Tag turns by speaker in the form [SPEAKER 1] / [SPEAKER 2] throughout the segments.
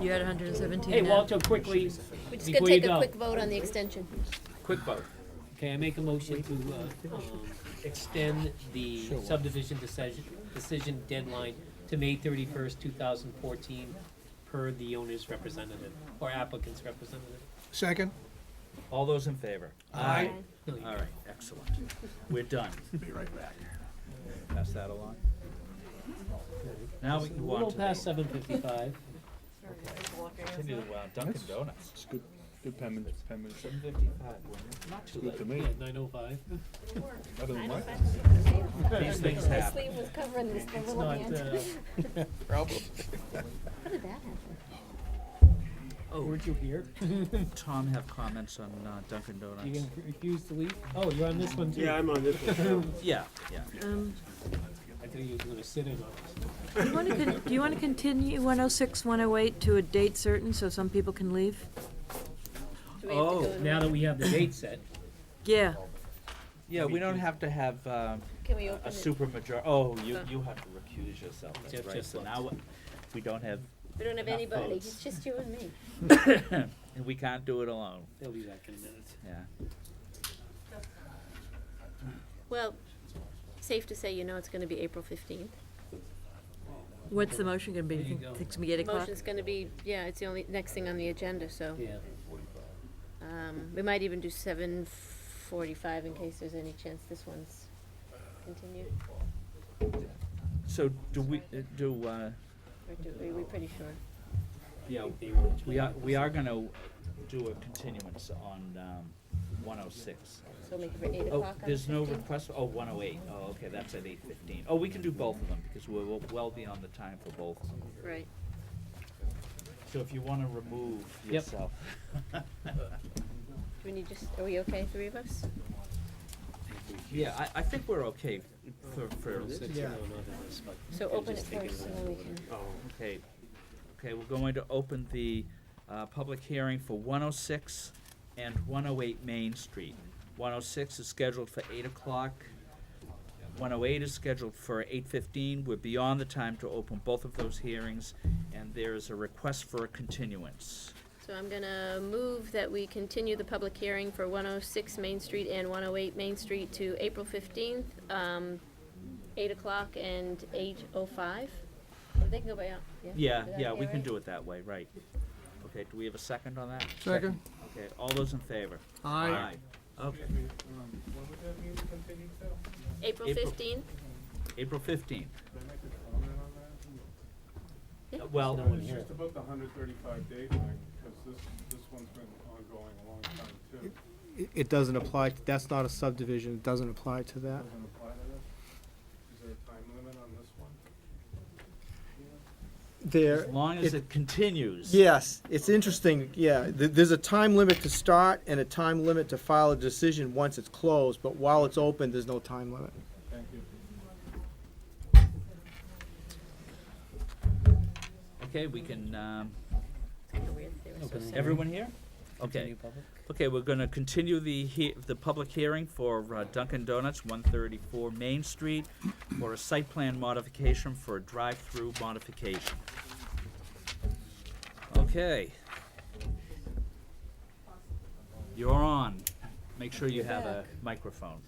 [SPEAKER 1] You had hundred and seventeen
[SPEAKER 2] Hey, Walter, quickly,
[SPEAKER 3] We're just
[SPEAKER 2] before
[SPEAKER 3] gonna
[SPEAKER 2] you
[SPEAKER 3] take a
[SPEAKER 2] go,
[SPEAKER 3] quick vote on the extension.
[SPEAKER 2] quick vote. Okay, I make a motion to, uh, um, extend the subdivision decision, decision deadline to May thirty-first, two thousand fourteen, per the owner's representative, or applicant's representative.
[SPEAKER 4] Second?
[SPEAKER 5] All those in favor?
[SPEAKER 4] Aye.
[SPEAKER 2] No, you-
[SPEAKER 5] All right, excellent. We're done.
[SPEAKER 4] Be right back.
[SPEAKER 5] Pass that along. Now we
[SPEAKER 2] A
[SPEAKER 5] can
[SPEAKER 2] little
[SPEAKER 5] walk to
[SPEAKER 2] past
[SPEAKER 5] the,
[SPEAKER 2] seven fifty-five.
[SPEAKER 5] continue to uh, Dunkin' Donuts.
[SPEAKER 4] It's good, good penman, penman.
[SPEAKER 5] Seven fifty-five, not too
[SPEAKER 4] Good to
[SPEAKER 5] late.
[SPEAKER 4] me.
[SPEAKER 2] Yeah, nine oh five.
[SPEAKER 4] Better than mine.
[SPEAKER 5] These things
[SPEAKER 3] My
[SPEAKER 5] happen.
[SPEAKER 3] sleeve was covering this
[SPEAKER 2] It's
[SPEAKER 3] little
[SPEAKER 2] not,
[SPEAKER 3] hand.
[SPEAKER 2] uh,
[SPEAKER 3] How did that happen?
[SPEAKER 5] Oh,
[SPEAKER 2] weren't you here?
[SPEAKER 5] Tom have comments on uh, Dunkin'
[SPEAKER 2] You
[SPEAKER 5] Donuts?
[SPEAKER 2] can refuse to leave? Oh, you're on this one too?
[SPEAKER 6] Yeah, I'm on this one.
[SPEAKER 5] Yeah, yeah.
[SPEAKER 1] Um,
[SPEAKER 2] I thought you were gonna sit in on this.
[SPEAKER 1] do you wanna con- do you wanna continue one oh six, one oh eight to a date certain so some people can leave?
[SPEAKER 3] Do we have to
[SPEAKER 5] Oh,
[SPEAKER 3] go to-
[SPEAKER 2] Now that we have the date set,
[SPEAKER 1] Yeah,
[SPEAKER 5] Yeah, we don't have to have um,
[SPEAKER 3] Can we
[SPEAKER 5] a
[SPEAKER 3] open it?
[SPEAKER 5] super major, oh, you, you have to recuse yourself, that's
[SPEAKER 2] Jeff
[SPEAKER 5] right.
[SPEAKER 2] just
[SPEAKER 5] So
[SPEAKER 2] looked.
[SPEAKER 5] now, we- we don't have,
[SPEAKER 3] We don't have
[SPEAKER 5] enough
[SPEAKER 3] anybody,
[SPEAKER 5] votes.
[SPEAKER 3] it's just you and me.
[SPEAKER 5] and we can't do it alone,
[SPEAKER 2] they'll be back in a minute.
[SPEAKER 5] yeah.
[SPEAKER 3] Well, safe to say, you know it's gonna be April fifteenth.
[SPEAKER 1] what's the motion gonna be?
[SPEAKER 2] There you
[SPEAKER 1] You
[SPEAKER 2] go.
[SPEAKER 1] think it's gonna be eight o'clock?
[SPEAKER 3] Motion's gonna be, yeah, it's the only, next thing on the agenda, so,
[SPEAKER 2] Yeah,
[SPEAKER 3] um, we might even do seven forty-five in case there's any chance this one's continued,
[SPEAKER 5] So do we, uh, do, uh,
[SPEAKER 3] or do, are we pretty sure?
[SPEAKER 5] yeah,
[SPEAKER 2] they were.
[SPEAKER 5] we are, we are gonna do a continuance on um, 106.
[SPEAKER 3] So make it for eight
[SPEAKER 5] Oh,
[SPEAKER 3] o'clock on the
[SPEAKER 5] there's no
[SPEAKER 3] 15th?
[SPEAKER 5] request, oh, 108, oh, okay, that's at 8:15. Oh, we can do both of them, because we're well- well beyond the time for both of them.
[SPEAKER 3] Right,
[SPEAKER 5] So if you wanna remove
[SPEAKER 2] Yep.
[SPEAKER 5] yourself.
[SPEAKER 3] do we need just, are we okay, three of us?
[SPEAKER 5] Yeah, I, I think we're okay for, for,
[SPEAKER 2] Six,
[SPEAKER 4] Yeah.
[SPEAKER 2] no, not in this, but
[SPEAKER 3] So
[SPEAKER 2] they're
[SPEAKER 3] open it
[SPEAKER 2] just thinking
[SPEAKER 3] first and
[SPEAKER 2] about
[SPEAKER 3] then we
[SPEAKER 2] it.
[SPEAKER 3] can,
[SPEAKER 5] okay, okay, we're going to open the uh, public hearing for 106 and 108 Main Street. 106 is scheduled for 8 o'clock, 108 is scheduled for 8:15. We're beyond the time to open both of those hearings, and there is a request for a continuance.
[SPEAKER 3] so I'm gonna move that we continue the public hearing for one oh six Main Street and one oh eight Main Street to April fifteenth, um, eight o'clock and eight oh five. They can go by, out- yeah?
[SPEAKER 5] Yeah,
[SPEAKER 3] Is that
[SPEAKER 5] yeah, we
[SPEAKER 3] okay,
[SPEAKER 5] can
[SPEAKER 3] right?
[SPEAKER 5] do it that way, right. Okay, do we have a second on that?
[SPEAKER 4] Second?
[SPEAKER 5] Okay, all those in favor?
[SPEAKER 4] Aye.
[SPEAKER 5] Aye. Okay,
[SPEAKER 3] April
[SPEAKER 5] April.
[SPEAKER 3] fifteenth?
[SPEAKER 5] April 15th.
[SPEAKER 3] Yeah.
[SPEAKER 5] Well,
[SPEAKER 2] No one
[SPEAKER 7] It's
[SPEAKER 2] here.
[SPEAKER 7] just about the hundred thirty-five day thing, because this, this one's been ongoing a long time too.
[SPEAKER 8] It- It doesn't apply, that's not a subdivision, it doesn't apply to that.
[SPEAKER 7] Doesn't apply to this? Is there a time limit on this one?
[SPEAKER 8] There,
[SPEAKER 5] As long as
[SPEAKER 8] it-
[SPEAKER 5] it continues.
[SPEAKER 8] yes, it's interesting, yeah, th- there's a time limit to start and a time limit to file a decision once it's closed, but while it's open, there's no time limit.
[SPEAKER 7] Thank you.
[SPEAKER 5] Okay, we can, um,
[SPEAKER 3] It's kinda weird that they
[SPEAKER 5] Oh,
[SPEAKER 3] were so
[SPEAKER 2] Open it.
[SPEAKER 3] separate.
[SPEAKER 5] everyone here?
[SPEAKER 2] Continue
[SPEAKER 5] Okay,
[SPEAKER 2] public?
[SPEAKER 5] okay, we're gonna continue the he- the public hearing for uh, Dunkin' Donuts, one thirty-four Main Street, for a site plan modification for a drive-through modification. Okay. You're on. Make sure you have a microphone.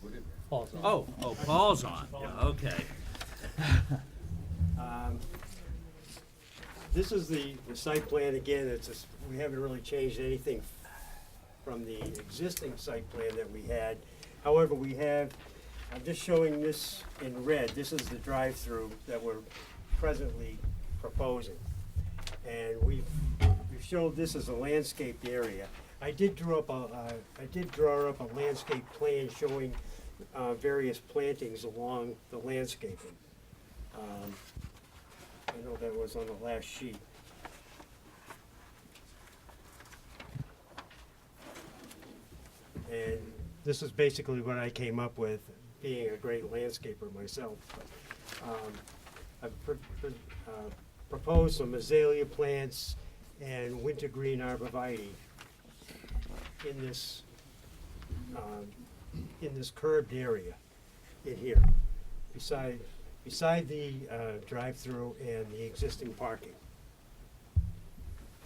[SPEAKER 2] Paul's on.
[SPEAKER 5] Oh, oh, Paul's on, okay.
[SPEAKER 6] Um, This is the, the site plan again, it's, a s- we haven't really changed anything from the existing site plan that we had. However, we have, I'm just showing this in red, this is the drive-through that we're presently proposing. And we've, we've showed this as a landscaped area. I did draw up a, uh, I did draw up a landscape plan showing, uh, various plantings along the landscaping. Um, I know that was on the last sheet. And this is basically what I came up with, being a great landscaper myself. Um, I've pr- pr- uh, proposed some azalea plants and winter green arborvitae in this, um, in this curved area in here beside, beside the uh, drive-through and the existing parking.